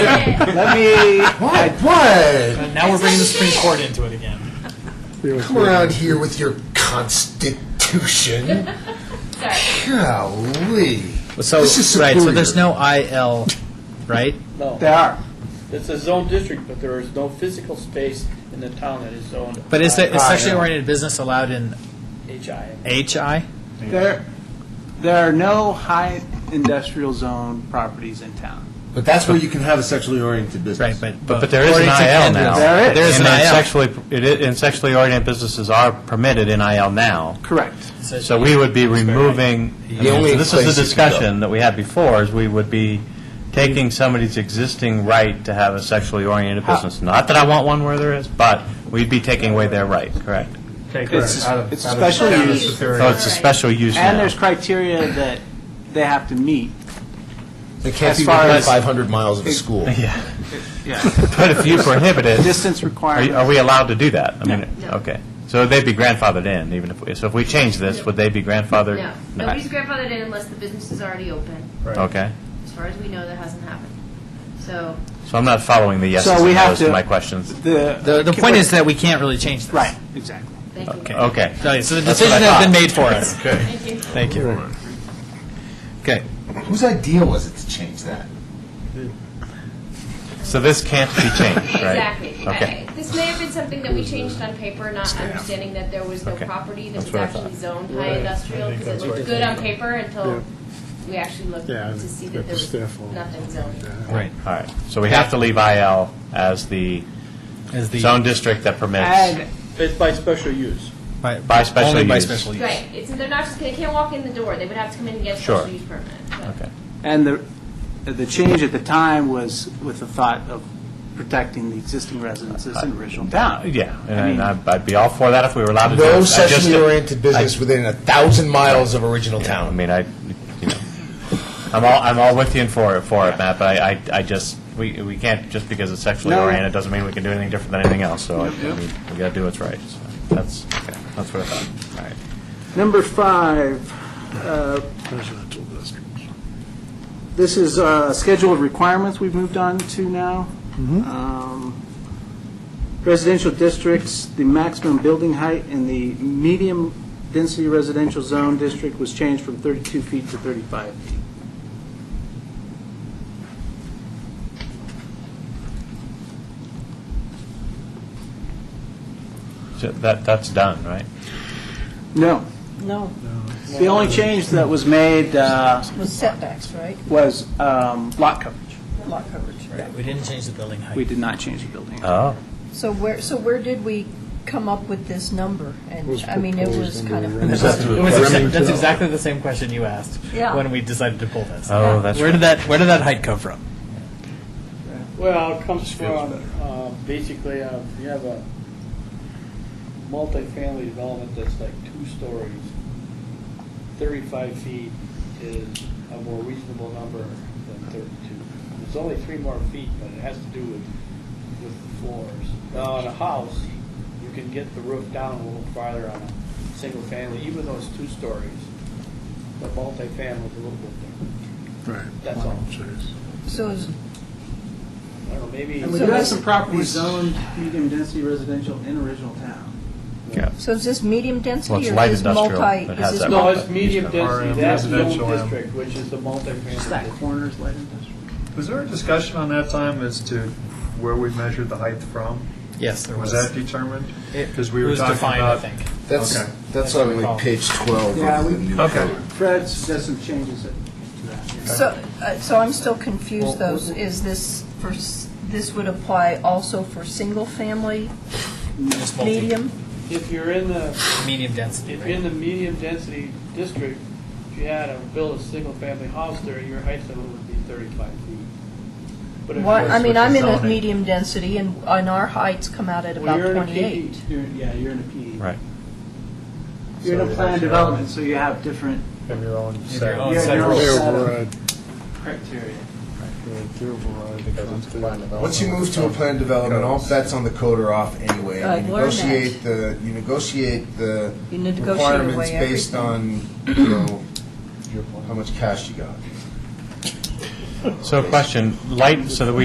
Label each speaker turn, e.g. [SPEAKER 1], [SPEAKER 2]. [SPEAKER 1] Let me,
[SPEAKER 2] What? What?
[SPEAKER 3] And now we're bringing the Supreme Court into it again.
[SPEAKER 2] Come around here with your constitution. Golly.
[SPEAKER 4] So,
[SPEAKER 2] This is
[SPEAKER 4] right, so
[SPEAKER 2] superior.
[SPEAKER 4] there's no IL, right?
[SPEAKER 5] No,
[SPEAKER 1] they are.
[SPEAKER 5] it's a zone district, but there is no physical space in the town that is zoned.
[SPEAKER 4] But is
[SPEAKER 5] by
[SPEAKER 4] there, is sexually
[SPEAKER 2] yeah.
[SPEAKER 4] oriented business allowed in
[SPEAKER 5] HI.
[SPEAKER 4] HI?
[SPEAKER 1] There, there are no high industrial zone properties in town.
[SPEAKER 2] But that's where you can have a sexually oriented
[SPEAKER 4] Right,
[SPEAKER 2] business.
[SPEAKER 4] but.
[SPEAKER 6] But there is an
[SPEAKER 4] according to
[SPEAKER 6] IL
[SPEAKER 4] Andrews-
[SPEAKER 6] now.
[SPEAKER 1] There is.
[SPEAKER 4] There is
[SPEAKER 6] And then
[SPEAKER 4] an
[SPEAKER 6] sexually, it i- and sexually oriented businesses are permitted in IL now.
[SPEAKER 1] Correct.
[SPEAKER 4] IL.
[SPEAKER 6] So we would be removing, I
[SPEAKER 2] The
[SPEAKER 6] mean,
[SPEAKER 2] only
[SPEAKER 6] so this is the
[SPEAKER 2] place you can go.
[SPEAKER 6] discussion that we had before, is we would be taking somebody's existing right to have a sexually oriented business. Not that I want one where there is, but we'd be taking away their right, correct?
[SPEAKER 1] It's, it's a special use,
[SPEAKER 6] So it's a special use
[SPEAKER 1] and
[SPEAKER 6] now.
[SPEAKER 1] there's criteria that they have to meet.
[SPEAKER 2] They can't
[SPEAKER 1] As
[SPEAKER 2] be
[SPEAKER 1] far
[SPEAKER 2] within
[SPEAKER 1] as-
[SPEAKER 2] 500 miles of a school.
[SPEAKER 1] Yeah,
[SPEAKER 6] But if you prohibit it,
[SPEAKER 1] distance
[SPEAKER 6] are you-
[SPEAKER 1] requirements.
[SPEAKER 6] are we allowed to do that? I mean, okay. So they'd be grandfathered in, even if, we- so if we change this, would they be grandfathered?
[SPEAKER 7] No,
[SPEAKER 6] No.
[SPEAKER 7] nobody's grandfathered in unless the business is already open.
[SPEAKER 6] Okay.
[SPEAKER 7] As far as we know, that hasn't happened. So,
[SPEAKER 6] So I'm not following the yeses
[SPEAKER 1] So we
[SPEAKER 6] and
[SPEAKER 1] have
[SPEAKER 6] nos to
[SPEAKER 1] to-
[SPEAKER 6] my questions.
[SPEAKER 4] The,
[SPEAKER 1] The,
[SPEAKER 4] the point is that we can't really change this.
[SPEAKER 1] right, exactly.
[SPEAKER 7] thank
[SPEAKER 4] Okay.
[SPEAKER 7] you.
[SPEAKER 6] Okay.
[SPEAKER 4] So so the
[SPEAKER 6] That's what I
[SPEAKER 4] decision has been
[SPEAKER 6] thought.
[SPEAKER 4] made for us.
[SPEAKER 7] Thank you.
[SPEAKER 4] Thank you. Okay.
[SPEAKER 2] Whose idea was it to change that?
[SPEAKER 6] So this can't be changed, right?
[SPEAKER 7] Exactly.
[SPEAKER 6] Okay.
[SPEAKER 7] I- This may have been something that we changed on paper, not understanding that there was no
[SPEAKER 6] Okay.
[SPEAKER 7] property that was
[SPEAKER 6] what I
[SPEAKER 7] actually zoned high industrial, because it looked good on paper until we actually looked to see that there was nothing zoned.
[SPEAKER 4] Right.
[SPEAKER 6] All right. So we have to leave IL as the
[SPEAKER 4] Is the-
[SPEAKER 6] zone district that permits
[SPEAKER 1] And
[SPEAKER 5] It's by special use.
[SPEAKER 4] by-
[SPEAKER 6] by special
[SPEAKER 4] Only by
[SPEAKER 6] use.
[SPEAKER 4] special use.
[SPEAKER 7] Right, it's, they're not just, they can't walk in the door, they would have to come in and get a
[SPEAKER 6] Sure.
[SPEAKER 7] special use permit. but-
[SPEAKER 6] Okay.
[SPEAKER 1] And the, the change at the time was with the thought of protecting the existing residences in original town.
[SPEAKER 6] Yeah,
[SPEAKER 1] I mean-
[SPEAKER 6] and I'd I'd be all for that if we were allowed to do it. I
[SPEAKER 2] No
[SPEAKER 6] just-
[SPEAKER 2] sexually oriented business
[SPEAKER 6] I-
[SPEAKER 2] within a thousand miles of original
[SPEAKER 6] Yeah, I
[SPEAKER 2] town.
[SPEAKER 6] mean, I, you know, I'm all, I'm all with you and for, it- for it, Matt, but I, I- I just, we, we can't, just because it's sexually
[SPEAKER 1] No.
[SPEAKER 6] oriented, doesn't mean we can do anything different than anything else, so, I I mean, we gotta do what's right, so, that's, okay, that's what I thought, all right.
[SPEAKER 1] Number five, uh, this is uh, schedule of requirements we've moved on to now. Um, Residential districts, the maximum building height in the medium-density residential zone district was changed from 32 feet to 35 feet.
[SPEAKER 6] So That, that's done, right?
[SPEAKER 1] No. No. The only change that was made uh,
[SPEAKER 8] Was setbacks, right?
[SPEAKER 1] was um, lot coverage.
[SPEAKER 8] Lot coverage, right?
[SPEAKER 4] We didn't change the building height.
[SPEAKER 1] We did not change the building. height.
[SPEAKER 6] Oh.
[SPEAKER 8] So where, so where did we come up with this number? And, I mean, it was kind
[SPEAKER 4] That's
[SPEAKER 8] of,
[SPEAKER 4] exa- that's exactly the same question you asked
[SPEAKER 8] Yeah.
[SPEAKER 4] when we decided to pull this.
[SPEAKER 6] Oh, that's
[SPEAKER 4] Where did that, where did that height come from?
[SPEAKER 5] Well, it comes from, uh, basically, uh, you have a multifamily development that's like two stories. Thirty-five feet is a more reasonable number than thirty-two. There's only three more feet, but it has to do with, with floors. Now, in a house, you can get the roof down a little farther on a single family, even though it's two stories. The multifamily is a little bit different. Right. That's all.
[SPEAKER 8] so is-
[SPEAKER 5] I don't know, maybe.
[SPEAKER 1] And we do have some properties zoned medium-density residential in original town.
[SPEAKER 8] so is this medium
[SPEAKER 6] Well,
[SPEAKER 8] density
[SPEAKER 6] it's
[SPEAKER 8] or
[SPEAKER 6] light
[SPEAKER 8] is this
[SPEAKER 6] industrial
[SPEAKER 8] multi?
[SPEAKER 6] that
[SPEAKER 8] is
[SPEAKER 6] has
[SPEAKER 8] this
[SPEAKER 6] that
[SPEAKER 5] No,
[SPEAKER 8] multi-
[SPEAKER 5] it's medium density, that's the
[SPEAKER 9] residential
[SPEAKER 5] old
[SPEAKER 9] M.
[SPEAKER 5] district, which is the
[SPEAKER 1] Just that
[SPEAKER 5] multifamily.
[SPEAKER 1] corner is light industrial.
[SPEAKER 9] Was there a discussion on that time as to where we measured the height from?
[SPEAKER 4] Yes, there
[SPEAKER 9] Was
[SPEAKER 4] was.
[SPEAKER 9] that determined?
[SPEAKER 4] It-
[SPEAKER 9] Because we
[SPEAKER 4] it
[SPEAKER 9] were
[SPEAKER 4] was
[SPEAKER 9] talking
[SPEAKER 4] defined, I
[SPEAKER 9] about.
[SPEAKER 4] think.
[SPEAKER 2] That's,
[SPEAKER 9] Okay.
[SPEAKER 2] that's on like
[SPEAKER 4] recall.
[SPEAKER 2] page 12
[SPEAKER 1] Yeah,
[SPEAKER 2] of the
[SPEAKER 1] we-
[SPEAKER 2] new
[SPEAKER 9] Okay.
[SPEAKER 2] code.
[SPEAKER 1] Fred does some changes to that. yeah.
[SPEAKER 8] So, uh, so I'm still confused though, is this for, s- this would apply also for single-family,
[SPEAKER 4] Just multi-
[SPEAKER 8] medium?
[SPEAKER 5] If you're in the,
[SPEAKER 4] Medium density,
[SPEAKER 5] if you're in
[SPEAKER 4] right?
[SPEAKER 5] the medium density district, if you had to build a single family house there, your height limit would be thirty-five feet. But if
[SPEAKER 8] Why,
[SPEAKER 5] you're-
[SPEAKER 8] I mean, I'm in a
[SPEAKER 6] zoning.
[SPEAKER 8] medium density and, and our heights come out at
[SPEAKER 5] well,
[SPEAKER 8] about
[SPEAKER 5] you're in a
[SPEAKER 1] E.
[SPEAKER 8] twenty-eight.
[SPEAKER 5] PD you're- Yeah, you're in a PD.
[SPEAKER 6] Right.
[SPEAKER 1] You're in a planned development, so you have different
[SPEAKER 9] From your own.
[SPEAKER 4] If
[SPEAKER 9] set.
[SPEAKER 4] you're on
[SPEAKER 1] Yeah,
[SPEAKER 4] separate-
[SPEAKER 1] you're
[SPEAKER 2] They're
[SPEAKER 1] set of
[SPEAKER 2] override.
[SPEAKER 1] criteria.
[SPEAKER 2] Once you move to a planned development, all bets on the code are off anyway.
[SPEAKER 8] I've
[SPEAKER 2] You
[SPEAKER 8] learned that.
[SPEAKER 2] negotiate the, you negotiate the
[SPEAKER 8] You negotiate away
[SPEAKER 2] requirements based on,
[SPEAKER 8] everything.
[SPEAKER 2] you know, how much cash you got.
[SPEAKER 6] So question, light, so that we